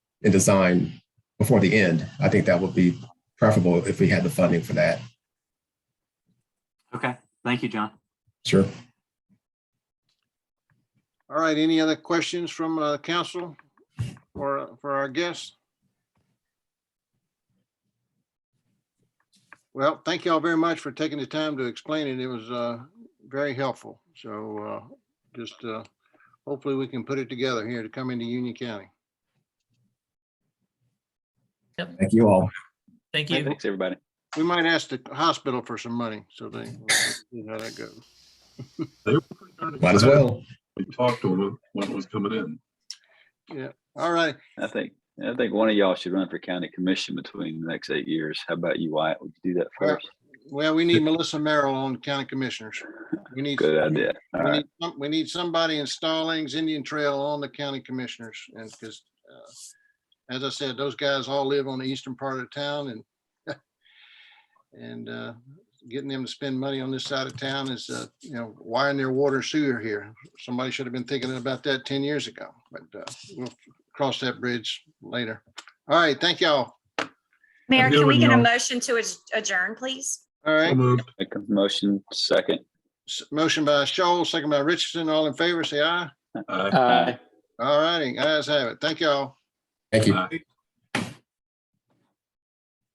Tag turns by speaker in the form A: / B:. A: and design before the end. I think that would be preferable if we had the funding for that.
B: Okay, thank you, John.
A: Sure.
C: All right, any other questions from uh, council or uh, for our guests? Well, thank you all very much for taking the time to explain it. It was uh, very helpful. So uh, just uh, hopefully we can put it together here to come into Union County.
A: Thank you all.
D: Thank you.
E: Thanks, everybody.
C: We might ask the hospital for some money, so they, see how that goes.
F: They were pretty darn
A: Might as
F: excited
A: well.
F: when We talked to them when it was coming in.
C: All right,
E: I think, I think one of y'all should run for county commission between the next eight years. How about you, Wyatt? Would you do that
C: Well,
E: first?
C: well, we need Melissa Merrill on the county commissioners. We need.
E: Good idea. All
C: We
E: right.
C: need, some- we need somebody in Stallings Indian Trail on the county commissioners and because as I said, those guys all live on the eastern part of town and and uh, getting them to spend money on this side of town is, uh, you know, wiring their water sewer here. Somebody should have been thinking about that ten years ago, but uh, we'll cross that bridge later. All right, thank y'all.
G: Mayor,
F: good
G: can we
F: one,
G: get a
F: y'all.
G: motion to adj- adjourn, please?
C: All
F: So
C: right,
F: moved.
E: Make a motion second.
C: s- motion by Shoal, second by Richardson, all in favor, say aye.
F: Aye.
C: All righty, guys have it. Thank y'all.
A: Thank you.
F: Aye.